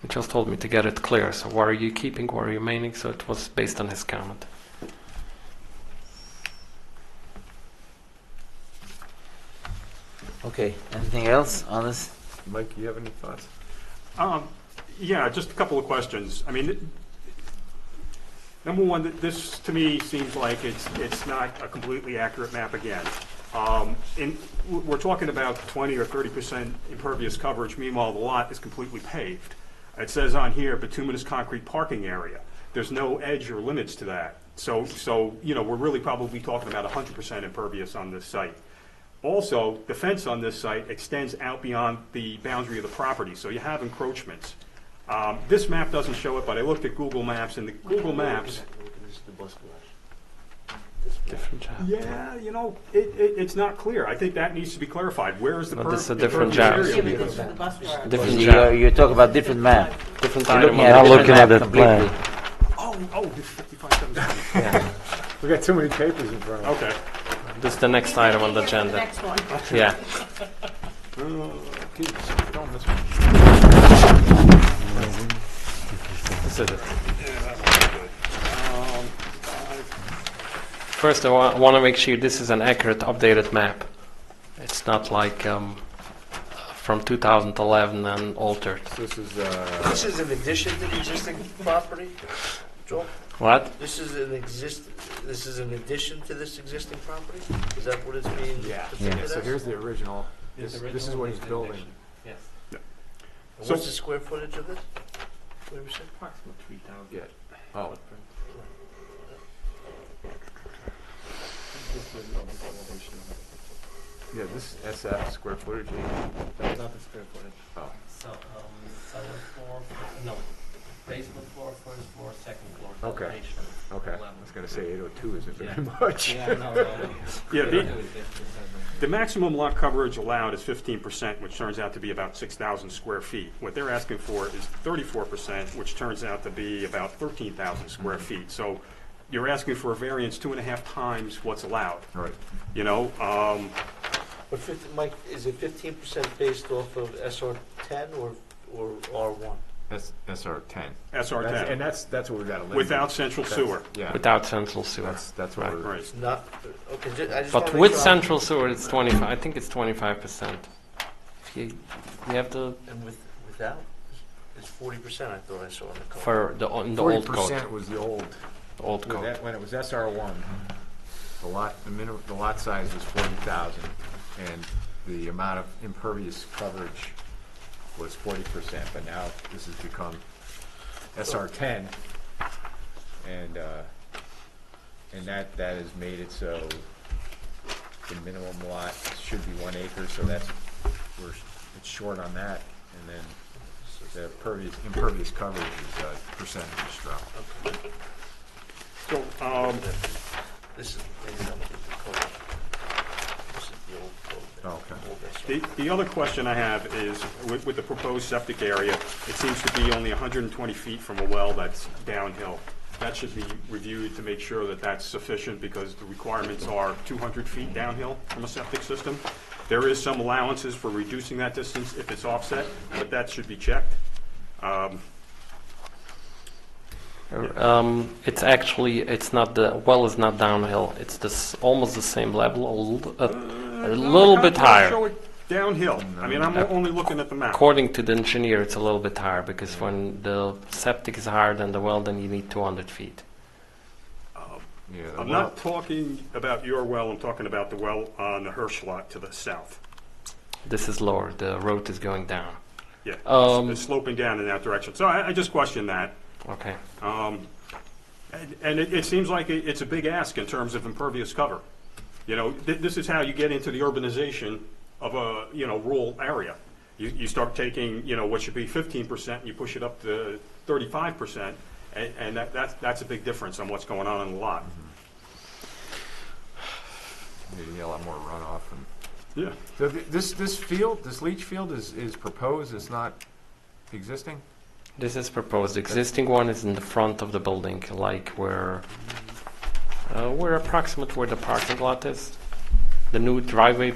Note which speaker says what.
Speaker 1: You just told me to get it clear. So what are you keeping? What are you remaining? So it was based on his comment.
Speaker 2: Okay, anything else on this?
Speaker 3: Mike, you have any thoughts?
Speaker 4: Um, Yeah, just a couple of questions. I mean, th- number one, th- this to me seems like it's, it's not a completely accurate map again. Um, And w- we're talking about 20 or 30% impervious coverage, meanwhile, the lot is completely paved. It says on here bituminous concrete parking area. There's no edge or limits to that. So, so, you know, we're really probably talking about 100% impervious on this site. Also, the fence on this site extends out beyond the boundary of the property, so you have encroachments. Um, This map doesn't show it, but I looked at Google Maps, and the Google Maps,
Speaker 1: Different job.
Speaker 4: yeah, you know, it, it, it's not clear. I think that needs to be clarified. Where is the
Speaker 1: But
Speaker 4: per-
Speaker 1: this is a
Speaker 4: the
Speaker 1: different
Speaker 4: pervious
Speaker 1: job.
Speaker 4: area?
Speaker 5: Yeah, but this is the bus driver.
Speaker 1: Different
Speaker 2: You,
Speaker 1: job.
Speaker 2: you talk about different map.
Speaker 1: Different
Speaker 2: You're
Speaker 1: item. on
Speaker 2: looking at
Speaker 1: the-
Speaker 2: a
Speaker 6: looking
Speaker 2: different
Speaker 6: at
Speaker 2: map
Speaker 6: the
Speaker 2: completely.
Speaker 6: plan.
Speaker 4: Oh, oh, the 55,000.
Speaker 3: We got too many papers in front of us.
Speaker 4: Okay.
Speaker 1: This is the next item on the
Speaker 5: Here for
Speaker 1: agenda.
Speaker 5: next one.
Speaker 1: Yeah.
Speaker 3: Keep going this way.
Speaker 1: This is it. First, I want to make sure this is an accurate, updated map. It's not like um, from 2011 and altered.
Speaker 3: So This is, uh,
Speaker 7: This is an addition to the existing property, Joel?
Speaker 1: What?
Speaker 7: This is an exist, this is an addition to this existing property? Is that what it's being
Speaker 3: Yeah.
Speaker 7: depicted as?
Speaker 3: so here's the original.
Speaker 6: Here's
Speaker 3: This,
Speaker 6: the
Speaker 3: this is
Speaker 6: original,
Speaker 3: what
Speaker 6: here's
Speaker 3: he's
Speaker 6: the
Speaker 3: building.
Speaker 6: addition. Yes.
Speaker 7: And What's the square footage of this? What you said?
Speaker 3: Yeah. Oh, yeah, this is SF square footage.
Speaker 6: That's not the square footage.
Speaker 3: Oh.
Speaker 6: So, um, second floor, fir- no, basement floor, first floor, second floor.
Speaker 3: Okay.
Speaker 6: combination.
Speaker 3: Okay,
Speaker 6: Eleven.
Speaker 3: I was gonna say 802 isn't very
Speaker 6: Yeah.
Speaker 3: much.
Speaker 6: Yeah, no, no, no.
Speaker 4: Yeah,
Speaker 6: They don't
Speaker 4: the-
Speaker 6: do it this- this time.
Speaker 4: The maximum lot coverage allowed is fifteen percent, which turns out to be about six thousand square feet. What they're asking for is thirty-four percent, which turns out to be about thirteen thousand square feet. So you're asking for a variance two and a half times what's allowed,
Speaker 3: Right.
Speaker 4: you know? Um,
Speaker 7: But fifty, Mike, is it fifteen percent based off of SR ten or, or R one?
Speaker 3: That's SR 10.
Speaker 4: SR
Speaker 3: And
Speaker 4: ten,
Speaker 3: that's, that's what we gotta limit.
Speaker 4: without central
Speaker 3: That's-
Speaker 4: sewer.
Speaker 3: Yeah,
Speaker 1: Without central sewer.
Speaker 3: that's, that's what
Speaker 1: Right.
Speaker 3: we're.
Speaker 4: Right.
Speaker 7: It's not, okay, ju- I just wanna
Speaker 1: But
Speaker 7: make
Speaker 1: with
Speaker 7: sure I'm-
Speaker 1: central sewer, it's 25. I think it's 25%. If you, you have to,
Speaker 7: And with, without, it's forty percent I thought I saw in the code.
Speaker 1: for the, in the
Speaker 3: Forty
Speaker 1: old code.
Speaker 3: percent was the old,
Speaker 1: the Old
Speaker 3: with
Speaker 1: code.
Speaker 3: that- when it was SR one, the lot, the minimum, the lot size was forty thousand, and the amount of impervious coverage was forty percent, but now this has become SR ten, and, uh, and that, that has made it so the minimum lot should be one acre, so that's, we're, it's short on that, and then the pervious, impervious coverage is, uh, percentage drop.
Speaker 4: So, um,
Speaker 7: This is, maybe that was the code. This is the old code.
Speaker 3: Okay.
Speaker 7: Old SR.
Speaker 4: The, the other question I have is, with, with the proposed septic area, it seems to be only 120 feet from a well that's downhill. That should be reviewed to make sure that that's sufficient, because the requirements are 200 feet downhill from a septic system. There is some allowances for reducing that distance if it's offset, but that should be checked. Um,
Speaker 1: Um, it's actually, it's not the, well is not downhill. It's this, almost the same level, a little, a, a little bit higher.
Speaker 4: Show it Downhill. I mean, I'm only looking at the map.
Speaker 1: According to the engineer, it's a little bit higher because when the septic is higher than the well, then you need 200 feet.
Speaker 3: Yeah, the lot-
Speaker 4: I'm not talking about your well, I'm talking about the well on the Hirsch lot to the south.
Speaker 1: This is lower. The road is going down.
Speaker 4: Yeah,
Speaker 1: Um,
Speaker 4: it's sloping down in that direction. So I, I just question that.
Speaker 1: Okay.
Speaker 4: Um, and and it, it seems like it, it's a big ask in terms of impervious cover. You know, th- this is how you get into the urbanization of a, you know, rural area. You, you start taking, you know, what should be fifteen percent and you push it up to thirty-five percent. And, and that, that's, that's a big difference on what's going on in the lot.
Speaker 3: Maybe a lot more runoff and.
Speaker 4: Yeah.
Speaker 3: So th- this, this field, this leach field is, is proposed, it's not existing?
Speaker 1: This is proposed. Existing one is in the front of the building, like where, uh, where approximate where the parking lot is. The new driveway